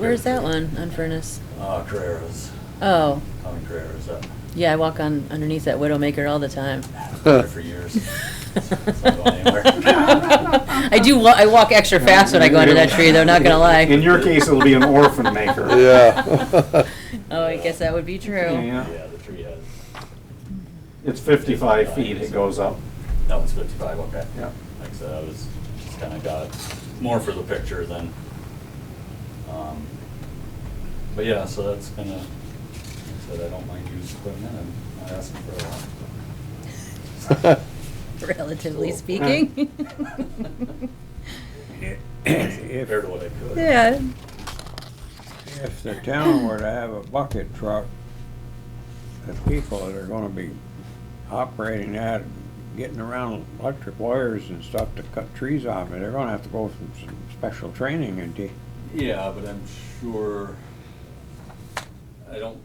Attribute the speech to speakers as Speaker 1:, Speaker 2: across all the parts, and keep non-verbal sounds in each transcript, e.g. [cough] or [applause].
Speaker 1: Where's that one on Furnace?
Speaker 2: Uh, Carreras,
Speaker 1: Oh,
Speaker 2: Tommy Carreras, that,
Speaker 1: yeah, I walk on underneath that Widowmaker all the time. [laughs]
Speaker 2: there for
Speaker 3: [laughs]
Speaker 2: years. It's not going anywhere.
Speaker 1: I do, wa- I walk extra fast when I go under that tree, though, not gonna
Speaker 4: In
Speaker 1: lie.
Speaker 4: your case, it'll be an orphan maker.
Speaker 3: Yeah.
Speaker 1: [laughs] Oh, I guess that would be true.
Speaker 4: Yeah.
Speaker 2: Yeah, the tree has,
Speaker 4: It's 55 feet, it goes up.
Speaker 2: that one's fifty-five, okay.
Speaker 4: Yeah.
Speaker 2: Like I said, I was, just kinda got more for the picture than, um, but yeah, so that's kinda, like I said, I don't mind used equipment, and I asked for a lot.
Speaker 1: Relatively speaking.
Speaker 3: [clears throat]
Speaker 2: Compared to what I could.
Speaker 1: [laughs] Yeah,
Speaker 5: If the town were to have a bucket truck, the people that are gonna be operating that, getting around electric wires and stuff to cut trees off, they're gonna have to go through some special training and de-
Speaker 2: Yeah, but I'm sure, I don't,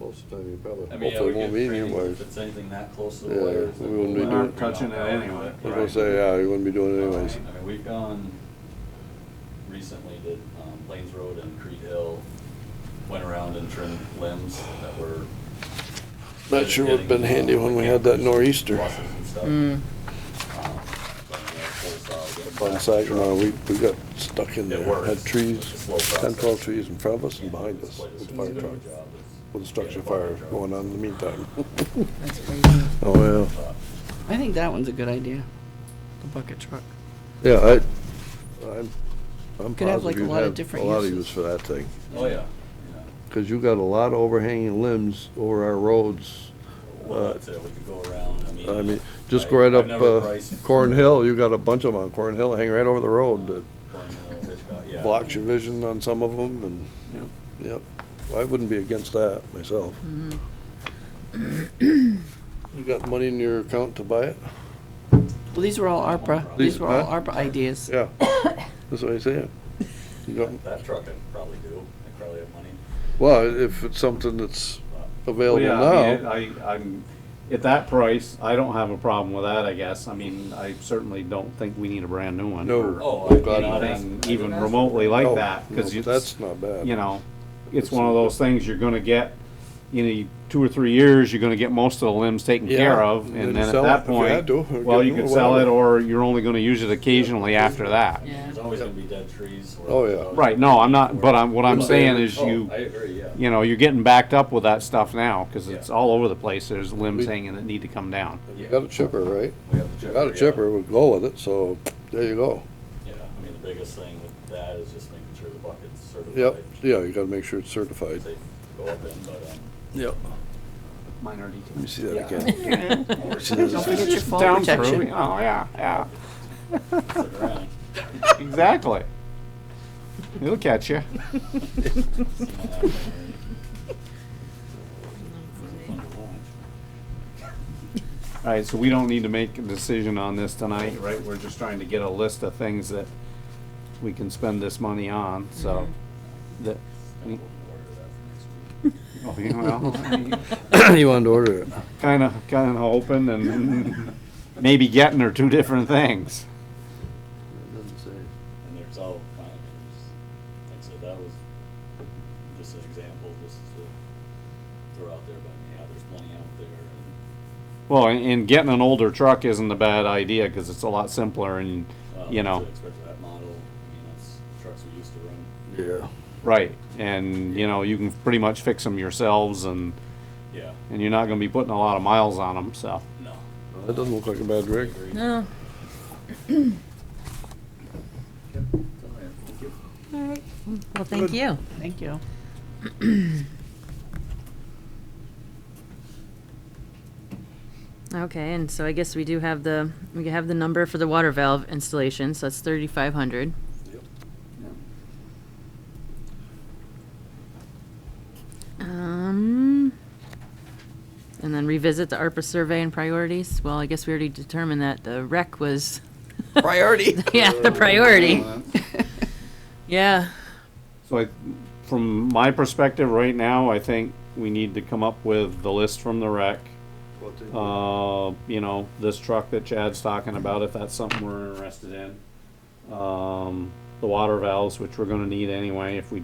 Speaker 3: Most of the time, you probably,
Speaker 2: I mean, I
Speaker 3: hopefully
Speaker 2: would
Speaker 3: won't
Speaker 2: get
Speaker 3: be
Speaker 2: training if
Speaker 3: anyways.
Speaker 2: it's anything that close to
Speaker 3: Yeah,
Speaker 2: the wires.
Speaker 3: we wouldn't be
Speaker 2: then
Speaker 3: doing
Speaker 2: we're
Speaker 3: it.
Speaker 4: Touching it anyway.
Speaker 3: I was
Speaker 2: Right.
Speaker 3: gonna say, yeah, you wouldn't be doing it anyways.
Speaker 2: I mean, Um, we've gone recently to um, Plains Road and Creed Hill, went around and trimmed limbs that were.
Speaker 3: Not sure would've been handy when we had that nor'easter.
Speaker 2: Buses and stuff.
Speaker 1: Mm.
Speaker 4: Mm-hmm.
Speaker 2: Um, but, you know, full saw, get it
Speaker 3: On
Speaker 2: back.
Speaker 3: site, you know, we, we got stuck in
Speaker 2: It
Speaker 3: there,
Speaker 2: works.
Speaker 3: had
Speaker 2: It's a
Speaker 3: trees,
Speaker 2: slow process.
Speaker 3: ten, twelve trees in front of us and behind
Speaker 2: It's
Speaker 3: us
Speaker 2: quite a
Speaker 3: with the fire
Speaker 2: specific
Speaker 3: truck,
Speaker 2: job. It's-
Speaker 3: with a structure
Speaker 2: Yeah, fire
Speaker 3: fire
Speaker 2: truck.
Speaker 3: going on in the meantime.
Speaker 1: that's crazy.
Speaker 3: Oh, yeah.
Speaker 2: but-
Speaker 6: I think that one's a good idea. The bucket truck.
Speaker 3: Yeah, I, I'm, I'm
Speaker 6: Could have,
Speaker 3: positive
Speaker 6: like, a
Speaker 3: you'd
Speaker 6: lot of
Speaker 3: have a
Speaker 6: different
Speaker 3: lot of
Speaker 6: uses.
Speaker 3: use for that thing.
Speaker 2: Oh, yeah.
Speaker 3: Cause you got a lot of overhanging limbs over our roads.
Speaker 2: Well,
Speaker 3: Uh,
Speaker 2: that's it. We could go around. I mean.
Speaker 3: I mean, just
Speaker 2: I-
Speaker 3: go right
Speaker 2: I've
Speaker 3: up,
Speaker 2: never
Speaker 3: uh,
Speaker 2: priced
Speaker 3: Corn Hill, you got a bunch of them on Corn Hill, hang right over the road that
Speaker 2: Corn Hill, Hitchcock, yeah.
Speaker 3: blocks your vision on some of them and, yep. I wouldn't be against that myself. You got money in your account to buy it?
Speaker 6: Well, these were all ARPA.
Speaker 3: These-
Speaker 6: These were all
Speaker 3: huh?
Speaker 6: ARPA ideas.
Speaker 3: Yeah, [coughs] that's what I say. You got,
Speaker 2: That truck I'd probably do. I probably have money.
Speaker 3: well, if it's something that's
Speaker 4: Well,
Speaker 3: available
Speaker 4: yeah, I
Speaker 3: now,
Speaker 4: mean, I, I'm, at that price, I don't have a problem with that, I guess. I mean, I certainly don't think we need a brand new one.
Speaker 3: No.
Speaker 4: or
Speaker 2: Oh, I've
Speaker 3: got
Speaker 2: got
Speaker 4: Anything even remotely like
Speaker 3: No,
Speaker 4: that,
Speaker 3: no,
Speaker 4: cause
Speaker 3: but
Speaker 4: it's.
Speaker 3: that's not bad.
Speaker 4: You know, it's one of those things you're gonna get, in two or three years, you're gonna get most of the limbs taken
Speaker 3: Yeah,
Speaker 4: care of,
Speaker 3: and then
Speaker 4: and
Speaker 3: you
Speaker 4: then at
Speaker 3: sell it
Speaker 4: that
Speaker 3: if you had
Speaker 4: point,
Speaker 3: to, or
Speaker 4: well,
Speaker 3: get
Speaker 4: you
Speaker 3: new
Speaker 4: could
Speaker 3: or
Speaker 4: sell it,
Speaker 3: whatever.
Speaker 4: or you're only gonna use it occasionally after that.
Speaker 1: Yeah.
Speaker 2: There's always gonna be dead trees. or-
Speaker 3: Oh, yeah.
Speaker 4: Right, no, I'm not, but I'm, what I'm saying is
Speaker 2: Oh,
Speaker 4: you,
Speaker 2: I agree, yeah.
Speaker 4: you know, you're getting backed up with that stuff now, cause it's
Speaker 2: Yeah.
Speaker 4: all over the place, there's
Speaker 3: We-
Speaker 4: limbs hanging that need to come down.
Speaker 3: you got a chipper, right?
Speaker 2: We have the
Speaker 3: You
Speaker 2: chipper.
Speaker 3: got a
Speaker 2: yeah.
Speaker 3: chipper, we'll go with it, so there you go.
Speaker 2: Yeah, I mean, the biggest thing with that is just making sure the bucket's certified.
Speaker 3: Yep, yeah, you gotta make sure it's certified.
Speaker 2: They go up in, but, um,
Speaker 3: Yep.
Speaker 4: Minor details.
Speaker 3: Let me see that again.
Speaker 6: Don't forget your fall
Speaker 4: Down
Speaker 6: protection.
Speaker 4: through, Oh, yeah, yeah, [laughs]
Speaker 2: stick [laughs] around.
Speaker 4: exactly. It'll catch [laughs] you.
Speaker 2: See what happens.
Speaker 4: All right, so we don't need to make a decision on this tonight, right? We're just trying to get a list of things that we can spend this money on, so.
Speaker 6: Mm-hmm.
Speaker 4: That,
Speaker 2: We'll order that for next week.
Speaker 4: oh, you
Speaker 6: [laughs]
Speaker 4: [laughs]
Speaker 3: [coughs]
Speaker 4: know,
Speaker 3: You wanted to order it.
Speaker 4: kinda, kinda hoping [laughs] and maybe getting are two different things.
Speaker 2: and there's all kinds. of- Like I said, that was just an example, just to throw out there, but yeah, there's plenty out there. and,
Speaker 4: Well, and- and getting an older truck isn't a bad idea, cause it's a lot simpler and,
Speaker 2: uh,
Speaker 4: you know.
Speaker 2: to expect that model, I mean, that's trucks we used to run.
Speaker 3: Yeah.
Speaker 4: Right, and, you know, you can pretty much fix them yourselves and,
Speaker 2: Yeah,
Speaker 4: and you're not gonna be putting a lot of miles on them, so.
Speaker 2: no.
Speaker 3: That doesn't look like a bad rig.
Speaker 1: No, [clears throat] well, thank you.
Speaker 6: Thank you.
Speaker 1: Okay, and so I guess we do have the, we have the number for the water valve installation, so that's thirty-five hundred. Um, and then revisit the ARPA survey and priorities. Well, I guess we already determined that the rec was, [laughs]
Speaker 6: Priority.
Speaker 1: yeah, the priority. [laughs] Yeah,
Speaker 4: So I, from my perspective right now, I think we need to come up with the list from the rec. Uh, you know, this truck that Chad's talking about, if that's something we're interested in. Um, the water valves, which we're gonna need anyway, if we